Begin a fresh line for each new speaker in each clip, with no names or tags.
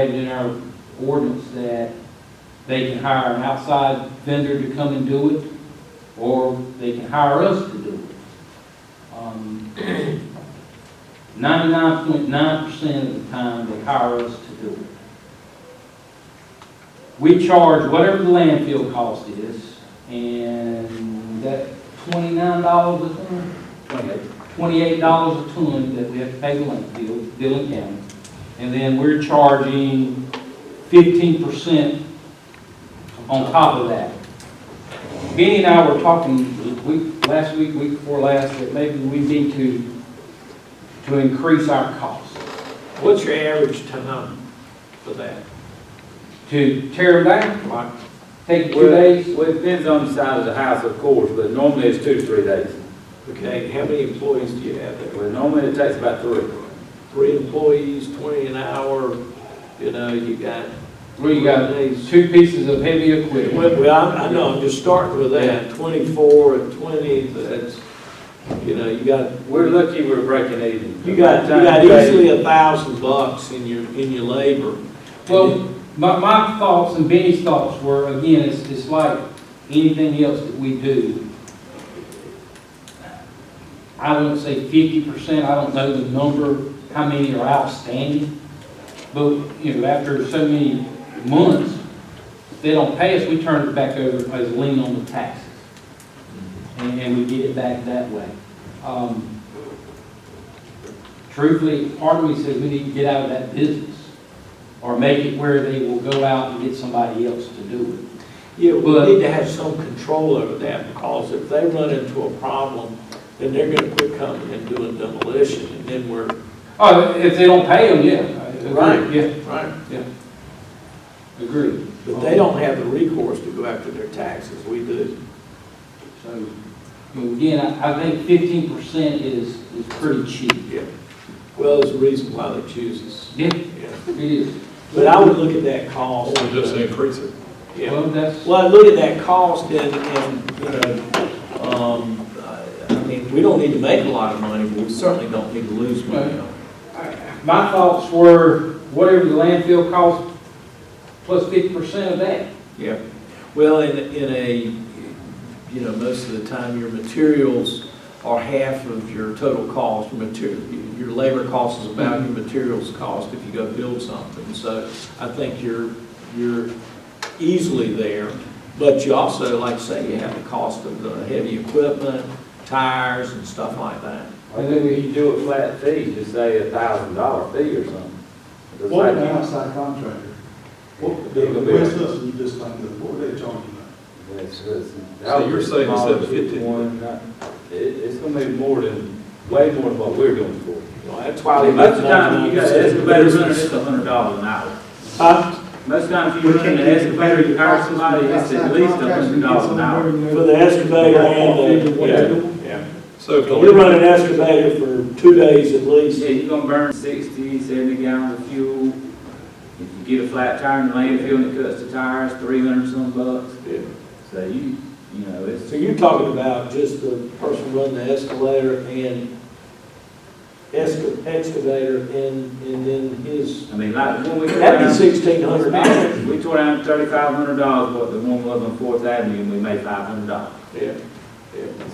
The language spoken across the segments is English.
stated in our ordinance that they can hire an outside vendor to come and do it, or they can hire us to do it. Ninety-nine point nine percent of the time, they hire us to do it. We charge whatever the landfill cost is, and that twenty-nine dollars a ton? Twenty-eight. Twenty-eight dollars a ton that we have to pay the landfill, Dillon County. And then we're charging fifteen percent on top of that. Benny and I were talking, week, last week, week before last, that maybe we need to, to increase our cost.
What's your average ton for that?
To tear them down,
Like,
take two
Well,
days,
Well, it depends on the size of the house, of course, but normally it's two to three days.
okay, how many employees do you have there?
Well, normally it takes about three.
Three employees, twenty an hour, you know, you got.
where you got
days.
two pieces of heavy equipment.
Well, well, I, I know, I'm just starting with that, twenty-four and twenty, that's, you know, you got,
We're lucky we're breaking even.
you got, you got easily a thousand bucks in your, in your labor.
Well, my, my thoughts and Benny's thoughts were, again, it's, it's like anything else that we do. I wouldn't say fifty percent, I don't know the number, how many are outstanding. But, you know, after so many months, if they don't pay us, we turn it back over as a lien on the taxes. And, and we get it back that way. Um, Truthfully, part of me says we need to get out of that business or make it where they will go out and get somebody else to do
Yeah, we
But-
need to have some control over that, because if they run into a problem, then they're gonna quit coming and doing demolition, and then we're,
it. Oh, if they don't pay them, yeah.
Right.
Yeah,
right?
agreed.
But they don't have the recourse to go after their taxes, we do.
So, I mean, again, I, I think fifteen percent is, is pretty cheap.
Yeah. Well, there's a reason why they choose us,
Yeah,
yeah.
it is.
But I would look at that cost.
Or just increase it.
Yeah.
Well, that's,
Well, I look at that cost and, and, you know, um, I I mean, we don't need to make a lot of money, but we certainly don't need to lose money. on it.
my thoughts were whatever the landfill cost plus fifty percent of that.
Yeah, well, in, in a, you know, most of the time, your materials are half of your total cost, your material, your labor cost is about your materials cost if you go build something, so I think you're, you're easily there, but you also, like I say, you have the cost of the heavy equipment, tires and stuff like that.
And then if you do a flat fee, just say a thousand dollar fee or something. It's
What an
like-
outside contractor.
What-
The West Hudson, you just think of, what are they charging now?
It's- it's-
So you're saying instead of 50?
One, uh, It, it's gonna be more than, way more than what we're going for.
You know, That's
Most
why.
of the time, you got an excavator running, it's a hundred dollars an hour.
For
Most times, if you run an excavator, you hire somebody, it's at least a hundred dollars an hour.
hour.
excavator
and the-
Yeah.
So
You're
if,
running an excavator for two days at least.
Yeah, you're gonna burn 60, 70 gallons of fuel. If you get a flat tire in the landfill and it cuts the tires, three hundred some bucks. So you, you know, it's,
So you're talking about just the person running the escalator and esca- excavator and, and then his,
I mean, like, when we tore
that'd be
down,
sixteen hundred dollars.
we tore down thirty-five hundred dollars, what the one was on Fourth Avenue, and we made five hundred dollars.
Yeah,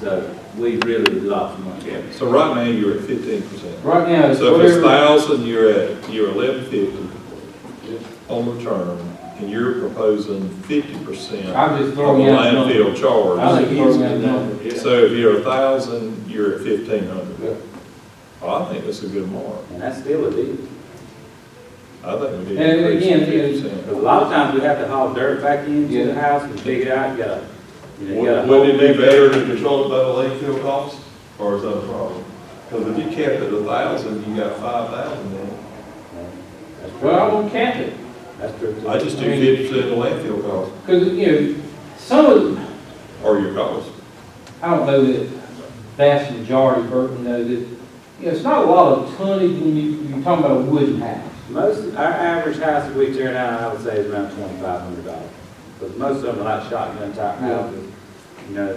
So we really lost money.
yeah.
so right now, you're at fifteen percent.
Right now, it's
So if it's
whatever,
thousand, you're at, you're eleven fifty on the term, and you're proposing fifty percent of
I'm just
the
throwing out. numbers.
landfill
I
charge.
think he's got that.
Yeah.
So if you're a thousand, you're at fifteen hundred. Well, I think that's a good mark.
And that's still a deal.
I think we
And
need to increase
again,
it
it-
to
'Cause
fifty
A lot of times we have to haul dirt back into
Yeah.
the house and dig it out, you gotta, you know, you gotta.
percent. Wouldn't it be better to control it by the landfill cost, or is that a problem? Because if you kept it a thousand, you got five thousand then.
That's
Well, I
true.
won't cap it.
That's true.
I just do fifty percent of the landfill cost,
Because, you know, some of,
or your cost.
I don't know that vast majority, Burton, know that, you know, it's not a lot of tonnage when you, you're talking about a wooden house.
Most, our average house that we tear down, I would say is around twenty-five hundred dollars. Because most of them are like shotgun type
Yeah.
houses, you know,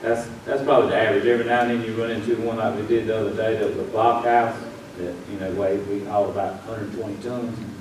that's, that's probably the average. Every now and then you run into one like we did the other day, that was a block house, that, you know, weighed, we hauled about hundred and twenty tons.